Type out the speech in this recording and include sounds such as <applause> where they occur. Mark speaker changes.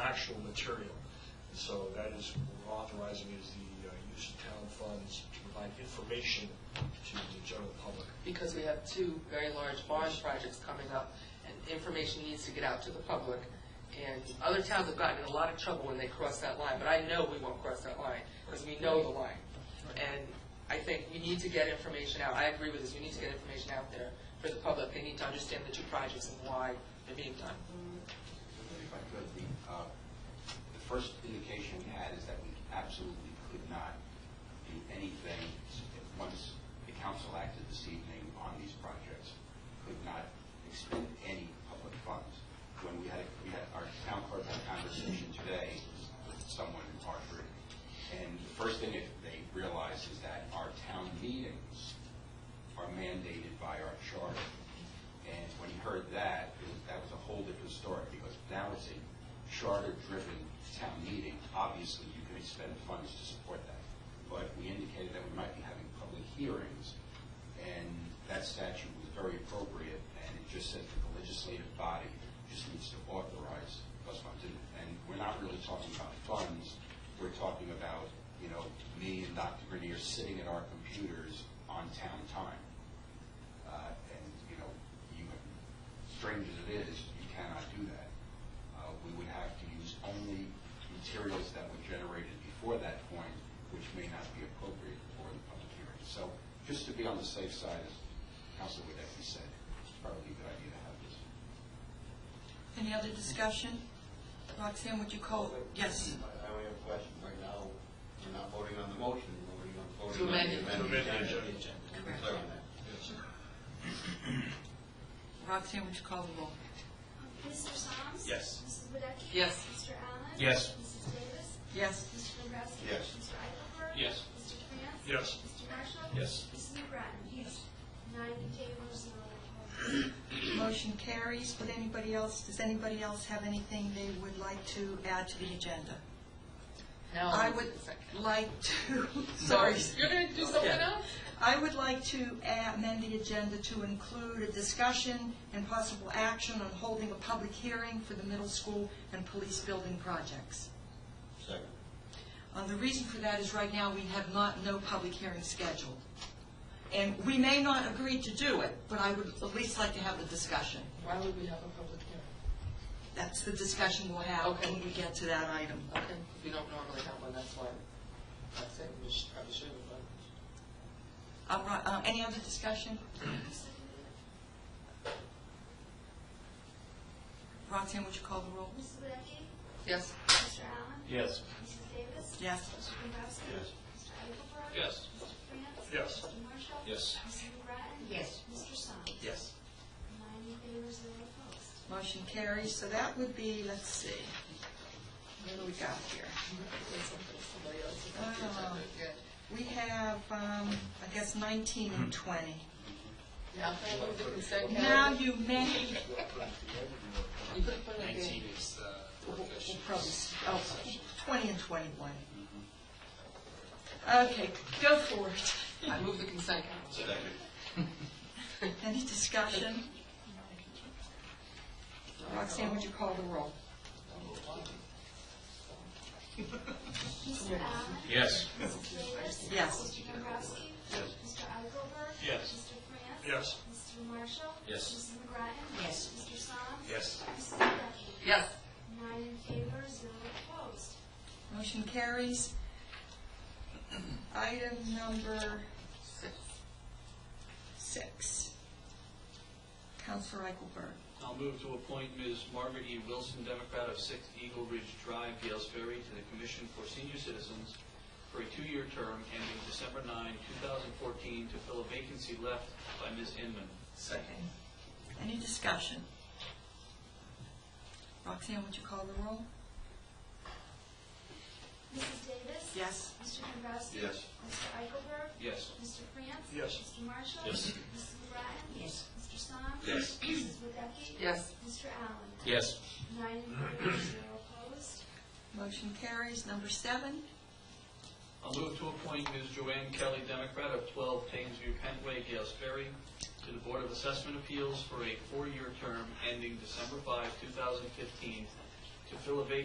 Speaker 1: actual material. And so that is, what we're authorizing is the uh, use of town funds to provide information to the general public.
Speaker 2: because we have two very large bond projects coming up, and information needs to get out to the public. And other towns have gotten in a lot of trouble when they cross that line, but I know we won't cross that line, because we know the line. And I think we need to get information out, I agree with this, we need to get information out there for the public, they need to understand the two projects and why they're being done.
Speaker 3: If I could, the, uh, the first indication we had is that we absolutely could not do anything once the council acted this evening on these projects, could not expend any public funds. When we had, we had, our town clerk had a conversation today with someone in Hartford, and the first thing that they realized is that our town meetings are mandated by our charter. And when he heard that, it was- that was a whole different story, because now it's a charter-driven town meeting. Obviously, you can expend funds to support that. But we indicated that we might be having public hearings, and that statute was very appropriate, and it just said that the legislative body just needs to authorize those funds. And- And we're not really talking about funds, we're talking about, you know, me and Dr. Grenier sitting at our computers on town time. Uh, And, you know, you, strange as it is, you cannot do that. Uh, We would have to use only materials that were generated before that point, which may not be appropriate for the public hearing. So just to be on the safe side, as Council Wadecki said, it's probably a good idea to have this.
Speaker 4: Any other discussion? Roxanne, would you call? Yes.
Speaker 5: I only have a question right now. We're not voting on the motion, we're voting on voting
Speaker 2: To
Speaker 5: on
Speaker 2: amend
Speaker 5: the
Speaker 2: it.
Speaker 5: amended
Speaker 1: To amend the
Speaker 5: agenda.
Speaker 1: agenda.
Speaker 5: Can we clear on that?
Speaker 4: Roxanne, would you call the roll?
Speaker 6: Mr. Soms?
Speaker 1: Yes.
Speaker 6: Mrs. Wadecki?
Speaker 2: Yes.
Speaker 6: Mr. Allen?
Speaker 1: Yes.
Speaker 6: Mrs. Davis?
Speaker 4: Yes.
Speaker 6: Mr. Dombrowski?
Speaker 5: Yes.
Speaker 6: Mr. Eichelberg?
Speaker 1: Yes.
Speaker 6: Mr. Cant?
Speaker 1: Yes.
Speaker 6: Mr. Marshall?
Speaker 1: Yes.
Speaker 6: Mrs. McBride? Yes. Nine in favor, zero
Speaker 1: <clears throat>
Speaker 6: opposed.
Speaker 4: Motion carries. Would anybody else, does anybody else have anything they would like to add to the agenda?
Speaker 2: Now,
Speaker 4: I would like to, <laughs> sorry.
Speaker 2: Um, You're gonna do something
Speaker 4: Yeah.
Speaker 2: else?
Speaker 4: I would like to add- amend the agenda to include a discussion and possible action on holding a public hearing for the middle school and police building projects.
Speaker 5: Second.
Speaker 4: Uh, The reason for that is right now, we have not, no public hearing scheduled. And we may not agree to do it, but I would at least like to have the discussion.
Speaker 2: Why would we have a public hearing?
Speaker 4: That's the discussion we'll have
Speaker 2: Okay.
Speaker 4: when we get to that item.
Speaker 2: Okay, we don't normally have one, that's why, I said we should, probably should have one.
Speaker 4: All right, uh, Any other discussion? Roxanne, would you call the roll?
Speaker 6: Mrs. Wadecki?
Speaker 2: Yes?
Speaker 6: Mr. Allen?
Speaker 1: Yes.
Speaker 6: Mrs. Davis?
Speaker 4: Yes.
Speaker 6: Mr. Dombrowski?
Speaker 5: Yes.
Speaker 6: Mr. Eichelberg?
Speaker 1: Yes.
Speaker 6: Mr. Cant?
Speaker 1: Yes.
Speaker 6: Mr. Marshall?
Speaker 1: Yes.
Speaker 6: Mrs. McBride?
Speaker 2: Yes.
Speaker 6: Mr. Soms?
Speaker 1: Yes.
Speaker 6: Nine in favor, zero opposed.
Speaker 4: Motion carries, so that would be, let's see, what do we got here? Oh. We have, um, I guess, 19 and 20.
Speaker 2: Now, can I move the consent
Speaker 4: Now
Speaker 2: calendar?
Speaker 4: you may,
Speaker 2: You could put it in.
Speaker 7: Nineteen is the
Speaker 4: we'll
Speaker 7: work
Speaker 4: we'll
Speaker 7: session.
Speaker 4: probably, oh, 20 and 21. Okay, go for it.
Speaker 2: I move the consent calendar.
Speaker 5: Second.
Speaker 4: Any discussion? Roxanne, would you call the roll?
Speaker 6: Mr. Allen?
Speaker 7: Yes.
Speaker 6: Mrs. Davis?
Speaker 4: Yes.
Speaker 6: Mr. Dombrowski? Yes. Mr. Eichelberg?
Speaker 1: Yes.
Speaker 6: Mr. France?
Speaker 1: Yes.
Speaker 6: Mr. Marshall?
Speaker 7: Yes.
Speaker 6: Mrs. McGrattan?
Speaker 4: Yes.
Speaker 6: Mr. Soms?
Speaker 7: Yes.
Speaker 6: Mrs. Wadecki?
Speaker 2: Yes,
Speaker 6: Nine in favor, zero opposed.
Speaker 4: Motion carries. Item number
Speaker 2: six.
Speaker 4: six. Counselor Eichelberg.
Speaker 8: I'll move to appoint Ms. Margaret E. Wilson, Democrat of 6 Eagle Ridge Drive, Gales Ferry, to the Commission for Senior Citizens for a two-year term ending December 9, 2014, to fill a vacancy left by Ms. Inman.
Speaker 2: Second.
Speaker 4: Any discussion? Roxanne, would you call the roll?
Speaker 6: Mrs. Davis?
Speaker 4: Yes.
Speaker 6: Mr. Dombrowski?
Speaker 5: Yes.
Speaker 6: Mr. Eichelberg?
Speaker 8: Yes.
Speaker 6: Mr. France?
Speaker 1: Yes.
Speaker 6: Mr. Marshall?
Speaker 7: Yes.
Speaker 6: Mrs. McGrattan?
Speaker 4: Yes.
Speaker 6: Mr. Soms?
Speaker 7: Yes.
Speaker 6: Mrs. Wadecki?
Speaker 2: Yes,
Speaker 6: Mr. Allen?
Speaker 7: Yes.
Speaker 6: Nine in favor, zero opposed.
Speaker 4: Motion carries. Number seven.
Speaker 8: I'll move to appoint Ms. Joanne Kelly, Democrat of 12 Thamesview Pentway, Gales Ferry, to the Board of Assessment Appeals for a four-year term ending December 5, 2015, to fill a vacancy